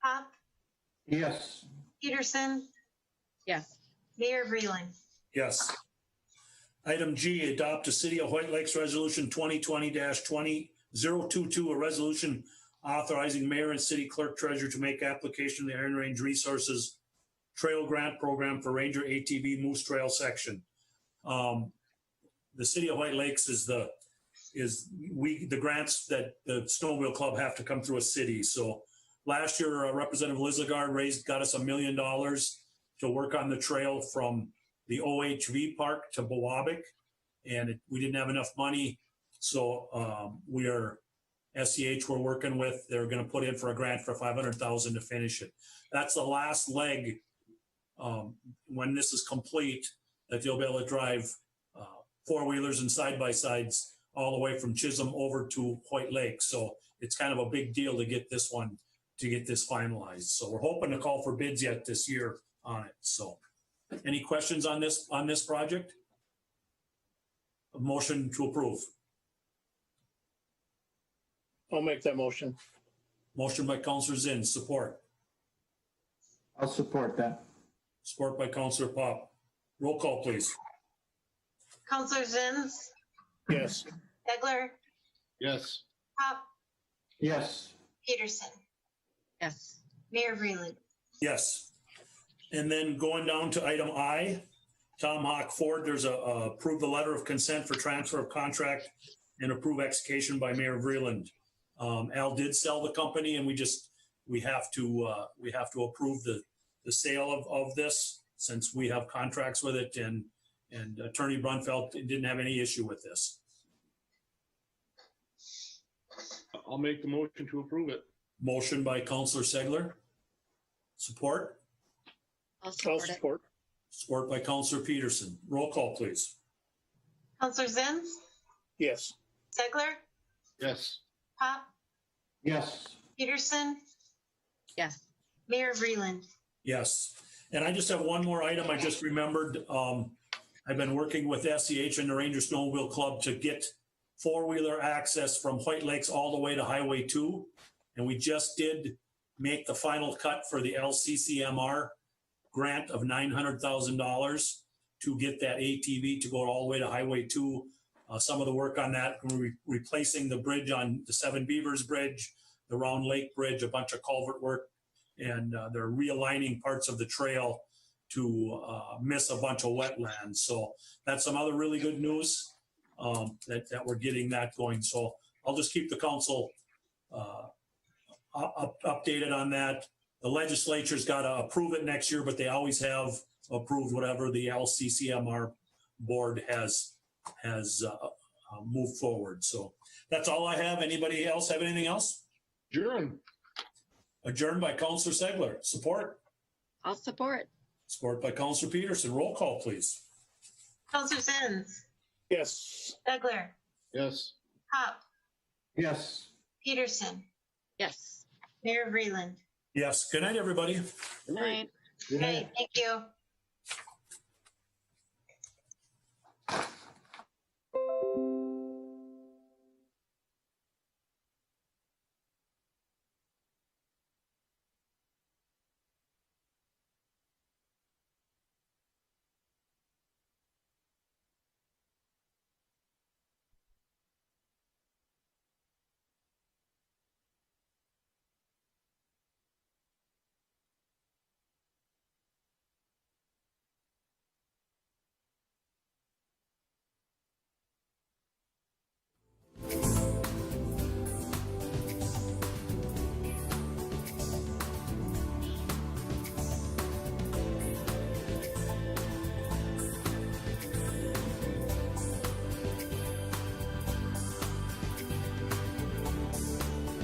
Yes. Peterson, Yes. Mayor Breland. Yes. Item G, adopt a City of White Lakes Resolution 2020-20022, a resolution authorizing mayor and city clerk treasurer to make application to the Iron Range Resources Trail Grant Program for Ranger ATV Moose Trail section. Um, The City of White Lakes is the, is we, the grants that the Snowmobile Club have to come through a city. So last year, uh, Representative Lizagard raised, got us a million dollars to work on the trail from the OHV park to Bowabic. And it- we didn't have enough money. So um, we are, SEH we're working with, they're going to put in for a grant for 500,000 to finish it. That's the last leg. um, When this is complete, that you'll be able to drive uh, four-wheelers and side-by-sides all the way from Chisholm over to White Lake. So it's kind of a big deal to get this one, to get this finalized. So we're hoping to call for bids yet this year on it. So. Any questions on this, on this project? A Motion to approve. I'll make that motion. Motion by Counselor Zinn, support. I'll support that. Support by Counselor Pop. Roll call, please. Counselor Zins, Yes, Segler, Yes. Pop, Yes. Peterson, Yes. Mayor Breland. Yes. And then going down to item I, Tom Hawk Ford, there's a, a approve the letter of consent for transfer of contract and approve execution by Mayor Vreeland. Um, Al did sell the company and we just, we have to, uh, we have to approve the, the sale of, of this since we have contracts with it and, and Attorney Brunfeld didn't have any issue with this. I'll make the motion to approve it. Motion by Counselor Segler. Support, I'll I'll support it. support. support by Counselor Peterson. Roll call, please. Counselor Zins, Yes, Segler, Yes. Pop, Yes. Peterson, Yes. Mayor Breland. Yes. And I just have one more item I just remembered. Um, I've been working with SEH and the Ranger Snowmobile Club to get four-wheeler access from White Lakes all the way to Highway Two. And we just did make the final cut for the LCCMR grant of nine hundred thousand dollars to get that ATV to go all the way to Highway Two. Uh, some of the work on that, we're re- replacing the bridge on the Seven Beavers Bridge, the Round Lake Bridge, a bunch of culvert work and uh, they're realigning parts of the trail to uh, miss a bunch of wetlands. So that's some other really good news um, that, that we're getting that going. So I'll just keep the council uh, up, up- updated on that. The legislature's got to approve it next year, but they always have approved whatever the LCCMR board has, has uh, uh, moved forward. So that's all I have. Anybody else have anything else? Jaren, Adjourned by Counselor Segler. Support? I'll support. Support by Counselor Peterson. Roll call, please. Counselor Zins, yes, Segler, yes. Pop, Yes. Peterson, Yes. Mayor Breland. Yes, good night, everybody. Good night. Right. Great, thank you.